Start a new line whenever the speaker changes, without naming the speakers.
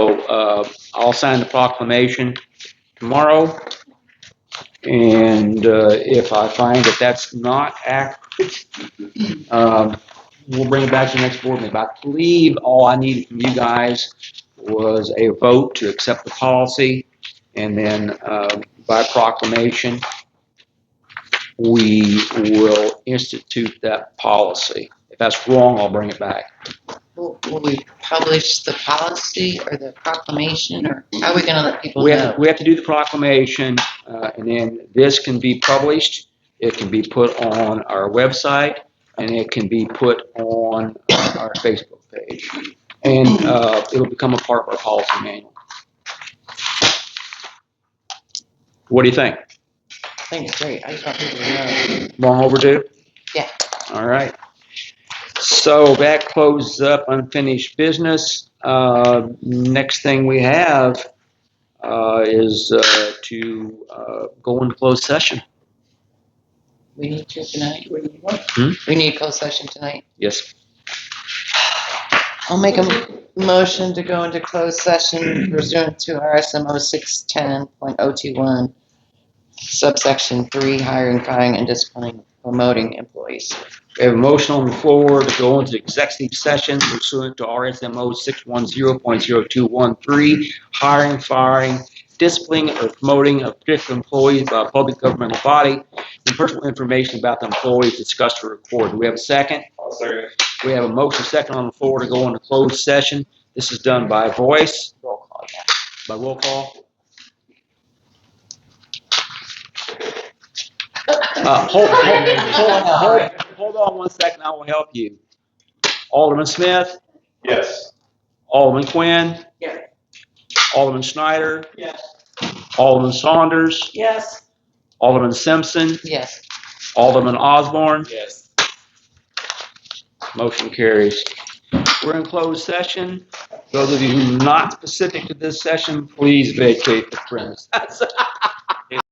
uh, I'll sign the proclamation tomorrow. And uh, if I find that that's not accurate, um, we'll bring it back to the next board meeting. But I believe all I needed from you guys was a vote to accept the policy. And then uh, by proclamation, we will institute that policy. If that's wrong, I'll bring it back.
Will will we publish the policy or the proclamation, or how are we gonna let people
We have,
know?
we have to do the proclamation, uh, and then this can be published. It can be put on our website, and it can be put on uh, our Facebook page. And uh, it'll become a part of our policy manual. What do you think?
I think it's great, I just want people to know.
Long overdue?
Yeah.
All right. So that closes up unfinished business. Uh, Next thing we have uh, is uh, to uh, go into closed session.
We need to tonight,
Hmm?
we need closed session tonight.
Yes.
I'll make a motion to go into closed session pursuant to RSMO six ten point oh two one, subsection three, hiring, firing, and disciplining, promoting employees.
We have a motion on the floor to go into executive session pursuant to RSMO 610.0213, hiring, firing, disciplining, or promoting of particular employees by a public governmental body, and personal information about the employees discussed or recorded. Do we have a second?
I'll second.
We have a motion second on the floor to go into closed session. This is done by voice,
Roll call, yeah.
by roll call. Uh, hold, hold, hold, hold, hold on one second, I will help you. Alderman Smith,
Yes.
Alderman Quinn.
Yes.
Alderman Schneider,
Yes.
Alderman Saunders,
Yes.
Alderman Simpson,
Yes.
Alderman Osborne.
Yes.
Motion carries. We're in closed session. Those of you who are not specific to this session, please vacate the premise.